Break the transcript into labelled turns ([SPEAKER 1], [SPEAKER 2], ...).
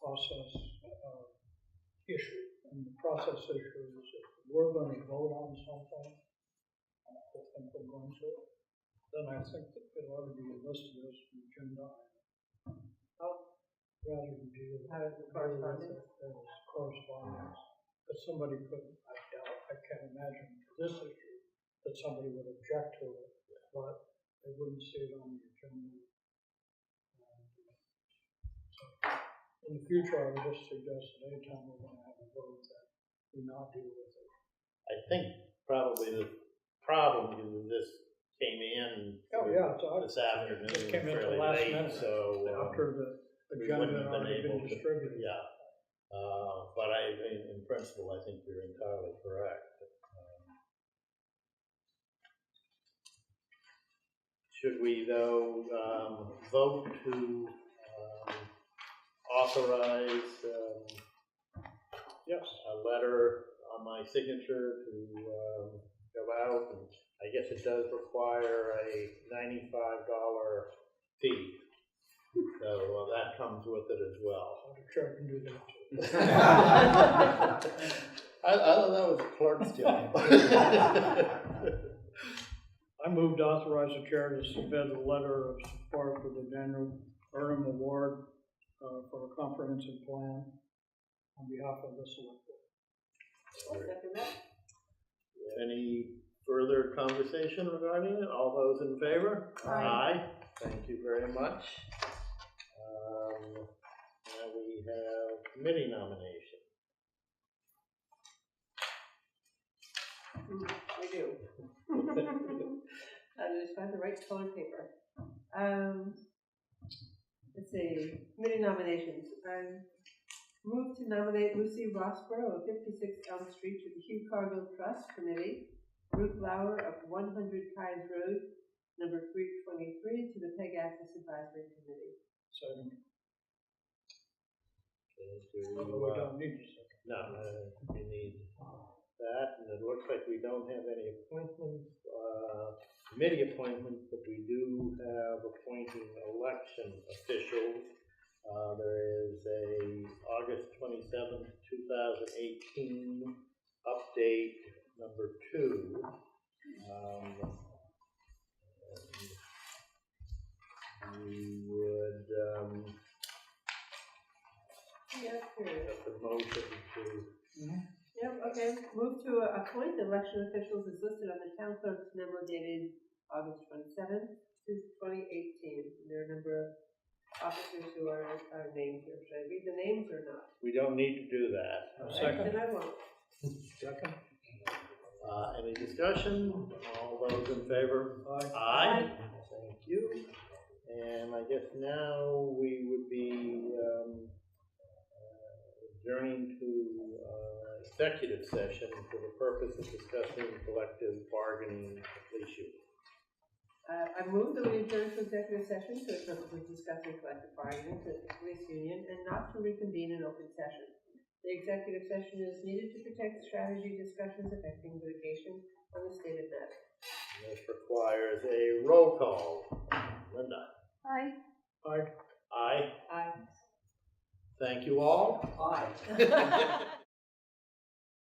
[SPEAKER 1] process uh, issue. And the process issue is if we're going to vote on something, and I don't think we're going to, then I think that it ought to be listed as an agenda item. Not rather than deal.
[SPEAKER 2] Have it correspondence?
[SPEAKER 1] As correspondence. But somebody could, I doubt, I can't imagine this issue, that somebody would object to it, but they wouldn't see it on the agenda. In the future, I would just suggest that anytime we're gonna have a vote that we not deal with it.
[SPEAKER 3] I think probably the problem is that this came in.
[SPEAKER 1] Oh, yeah, it's odd.
[SPEAKER 3] This afternoon,
[SPEAKER 1] Just came in at the
[SPEAKER 3] fairly
[SPEAKER 1] last
[SPEAKER 3] late,
[SPEAKER 1] minute.
[SPEAKER 3] so. um,
[SPEAKER 1] After the
[SPEAKER 3] we
[SPEAKER 1] agenda
[SPEAKER 3] wouldn't
[SPEAKER 1] had
[SPEAKER 3] have been
[SPEAKER 1] already been
[SPEAKER 3] able to-
[SPEAKER 1] distributed.
[SPEAKER 3] Yeah, uh, but I, in, in principle, I think you're entirely correct. Um, Should we though, um, vote to, um, authorize, um,
[SPEAKER 1] Yes,
[SPEAKER 3] a letter on my signature to, um, go out, and I guess it does require a ninety-five dollar fee. So uh, that comes with it as well.
[SPEAKER 1] I'll try to do that.
[SPEAKER 3] I, I thought that was a clerk's job.
[SPEAKER 1] I moved to authorize the chair to submit a letter of support for the Daniel Burnham Award uh, for a comprehensive plan on behalf of the select board.
[SPEAKER 3] Any further conversation regarding it? All those in favor?
[SPEAKER 2] Aye.
[SPEAKER 3] Thank you very much. Um, Now we have committee nomination.
[SPEAKER 2] I do. I just find the right colored paper. Um, let's see, committee nominations. I move to nominate Lucy Rossborough of fifty-six Elm Street to the Hugh Cargill Trust Committee, Ruth Lauer of one hundred Pines Road, number three twenty-three, to the Peg Access Advisory Committee.
[SPEAKER 1] So
[SPEAKER 3] Okay, do,
[SPEAKER 1] we
[SPEAKER 3] uh,
[SPEAKER 1] Oh, don't need to say.
[SPEAKER 3] No, uh, we need that, and it looks like we don't have any appointments, uh, committee appointments, but we do have appointing election officials. Uh, There is a August twenty-seventh, two thousand eighteen update number two. Um, and We would, um,
[SPEAKER 2] Yeah, period.
[SPEAKER 3] have the motion to
[SPEAKER 2] Yep, okay, move to appoint election officials as listed on the town clerk's memo dated August twenty-seventh, twenty eighteen. There are a number of officers who are, are named here, should I read the names or not?
[SPEAKER 3] We don't need to do that.
[SPEAKER 1] A second.
[SPEAKER 2] Then I won't.
[SPEAKER 1] Second?
[SPEAKER 3] Uh, any discussion? All those in favor?
[SPEAKER 1] Aye.
[SPEAKER 3] Aye. Thank you. And I guess now we would be, um, uh, adjourning to, uh, executive session for the purpose of discussing collective bargaining issue.
[SPEAKER 2] Uh, I move that we adjourn to executive session to appropriately discuss and collective bargaining with the police union and not to reconvene in open session. The executive session is needed to protect strategy discussions affecting litigation on the state of matter.
[SPEAKER 3] This requires a roll call. Linda?
[SPEAKER 4] Hi.
[SPEAKER 1] Aye.
[SPEAKER 3] Aye.
[SPEAKER 2] Aye.
[SPEAKER 3] Thank you all.
[SPEAKER 5] Aye.